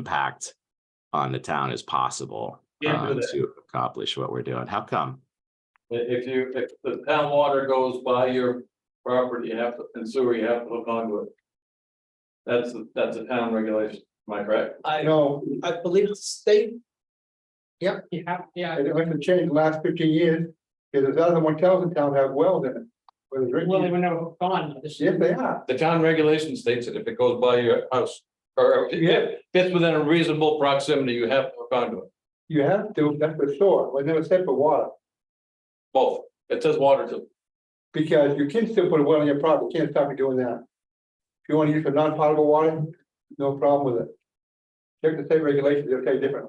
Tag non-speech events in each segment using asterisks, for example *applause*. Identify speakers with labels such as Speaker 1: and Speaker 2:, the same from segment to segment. Speaker 1: impact on the town as possible
Speaker 2: Can't do
Speaker 1: uh,
Speaker 2: that.
Speaker 1: to accomplish what we're doing. How come?
Speaker 2: If you, if the town water goes by your property, you have to, and sewer, you have to hook onto it. That's, that's a town regulation, am I correct?
Speaker 3: I
Speaker 4: No,
Speaker 3: I believe it's state.
Speaker 4: Yep.
Speaker 3: You have, yeah.
Speaker 4: it hasn't changed the last fifteen years, because there's other motels in town have wells in it. Where they
Speaker 3: Well, they
Speaker 4: drink,
Speaker 3: were never gone. This
Speaker 4: yes, they are,
Speaker 2: The town regulation states that if it goes by your house, or if it fits within a reasonable proximity, you have to hook onto it,
Speaker 4: you have to, that's for sure, was never said for water,
Speaker 2: both. It says water too.
Speaker 4: because you can still put a well in your property, you can't stop you doing that. If you wanna use for non-potable water, no problem with it. Check the state regulations, they'll say different,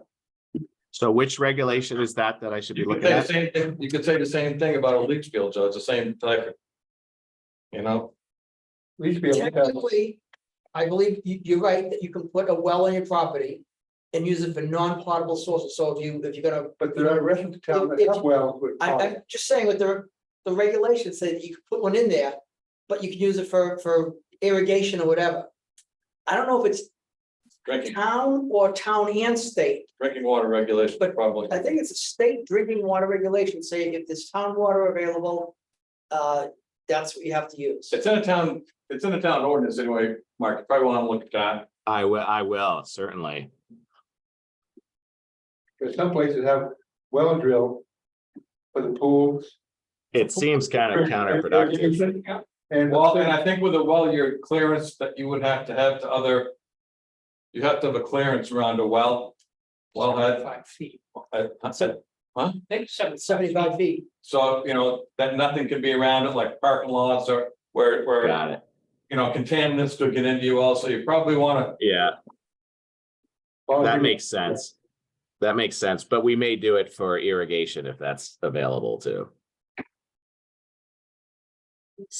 Speaker 1: So which regulation is that that I should be
Speaker 2: You could
Speaker 1: looking
Speaker 2: say the
Speaker 1: at?
Speaker 2: same thing, you could say the same thing about a leach field, so it's the same type. of You know,
Speaker 4: at least be able to have.
Speaker 3: Technically, I believe you, you're right, that you can put a well on your property and use it for non-potable sources. So if you, if you're gonna,
Speaker 4: But there are restaurants in town that have wells with.
Speaker 3: I, I'm just saying with the, the regulations say that you can put one in there, but you can use it for, for irrigation or whatever. I don't know if it's
Speaker 2: drinking,
Speaker 3: town or town and state.
Speaker 2: drinking water regulation,
Speaker 3: But
Speaker 2: probably.
Speaker 3: I think it's a state drinking water regulation saying if there's town water available, uh, that's what you have to use.
Speaker 2: It's in a town, it's in a town ordinance anyway, Mark, you probably want to look at that.
Speaker 1: I will, I will, certainly.
Speaker 4: Because some places have well drill for the pools.
Speaker 1: It seems kind of counterproductive.
Speaker 4: And
Speaker 2: Well, and I think with a well, your clearance that you would have to have to other. You have to have a clearance around a well. Wellhead,
Speaker 5: Five feet,
Speaker 2: I, I said,
Speaker 5: I think seven,
Speaker 3: Seventy-five feet.
Speaker 2: so, you know, that nothing can be around it like parking lots or where, where,
Speaker 1: Got it.
Speaker 2: you know, contaminants could get into you also. You probably wanna,
Speaker 1: Yeah,
Speaker 2: Oh,
Speaker 1: that makes sense. That makes sense, but we may do it for irrigation if that's available too.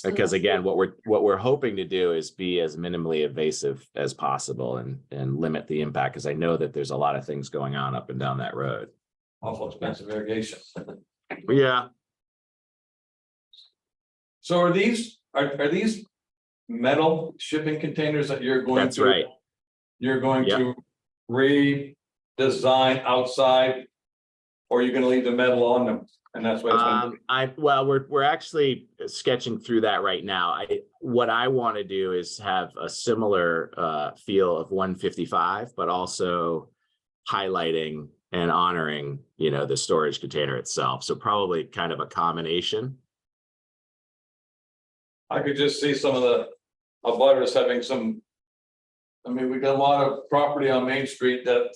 Speaker 1: Because again, what we're, what we're hoping to do is be as minimally invasive as possible and, and limit the impact, because I know that there's a lot of things going on up and down that road.
Speaker 2: awful expensive irrigation.
Speaker 1: Yeah.
Speaker 2: So are these, are, are these metal shipping containers that you're going to?
Speaker 1: That's right.
Speaker 2: You're going
Speaker 1: Yeah.
Speaker 2: to redesign outside? Or you're gonna leave the metal on them and that's why it's gonna
Speaker 1: Um, I, well, we're, we're actually sketching through that right now. I, what I want to do is have a similar, uh, feel of one fifty-five, but also highlighting and honoring, you know, the storage container itself. So probably kind of a combination.
Speaker 2: I could just see some of the abutters having some. I mean, we got a lot of property on Main Street that.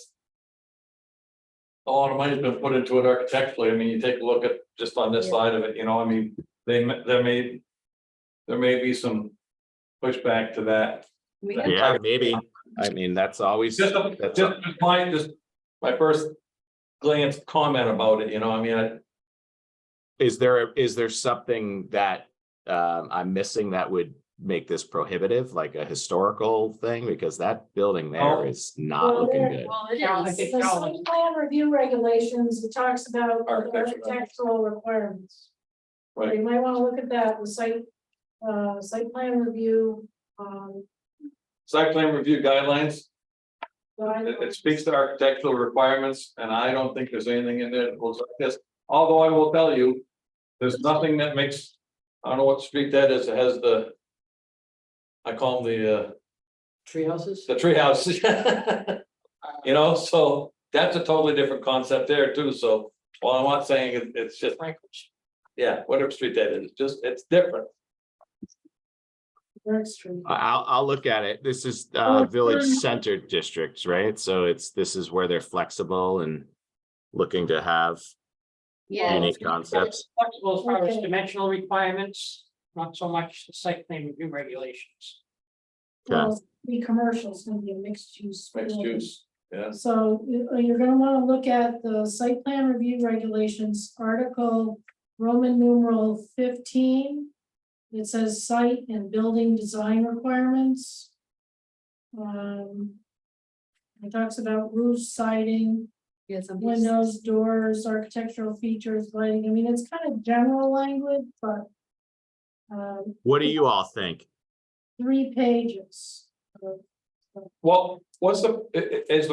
Speaker 2: A lot of money's been put into it architecturally. I mean, you take a look at just on this
Speaker 3: Yeah.
Speaker 2: side of it, you know, I mean, they, m- there may. There may be some pushback to that.
Speaker 6: We
Speaker 2: that
Speaker 6: have-
Speaker 1: Yeah, maybe. I mean, that's always,
Speaker 2: Just, a-
Speaker 1: that's,
Speaker 2: just
Speaker 1: a-
Speaker 2: my, just my first glance comment about it, you know, I mean, I.
Speaker 1: is there, is there something that, um, I'm missing that would make this prohibitive, like a historical thing? Because that building
Speaker 2: Oh.
Speaker 1: there is not
Speaker 6: Well,
Speaker 1: looking
Speaker 6: there-
Speaker 1: good.
Speaker 6: well, it
Speaker 5: Yeah, I
Speaker 6: is.
Speaker 5: think
Speaker 6: The
Speaker 5: so.
Speaker 6: site plan review regulations, it talks about the
Speaker 2: Architectural.
Speaker 6: architectural requirements.
Speaker 2: Right.
Speaker 6: You might wanna look at that, the site, uh, site plan review, um.
Speaker 2: Site plan review guidelines, It,
Speaker 6: guidelines.
Speaker 2: it speaks to architectural requirements, and I don't think there's anything in there that looks like this, although I will tell you. There's nothing that makes, I don't know what street that is, it has the. I call them the, uh,
Speaker 3: Tree houses?
Speaker 2: the tree houses. *laughs* You know, so that's a totally different concept there too, so, well, I'm not saying it- it's just, yeah, whatever street that is, just, it's different.
Speaker 6: That's true.
Speaker 1: I- I'll, I'll look at it. This is, uh, village centered districts, right? So it's, this is where they're flexible and looking to have
Speaker 5: yeah.
Speaker 1: unique concepts.
Speaker 5: Flexible as far as
Speaker 6: Okay.
Speaker 5: dimensional requirements, not so much the site plan review regulations.
Speaker 1: Yeah.
Speaker 6: Well, Be commercial, it's gonna be a mixed use.
Speaker 2: Mixed
Speaker 6: building.
Speaker 2: use, yes.
Speaker 6: So you- you're gonna wanna look at the site plan review regulations, article Roman numeral fifteen. It says site and building design requirements. Um. It talks about roof siding, windows, doors, architectural features, lighting, I mean, it's kind of general language, but. Um,
Speaker 1: What do you all think?
Speaker 6: three pages.
Speaker 2: Well, what's the, i- i- is the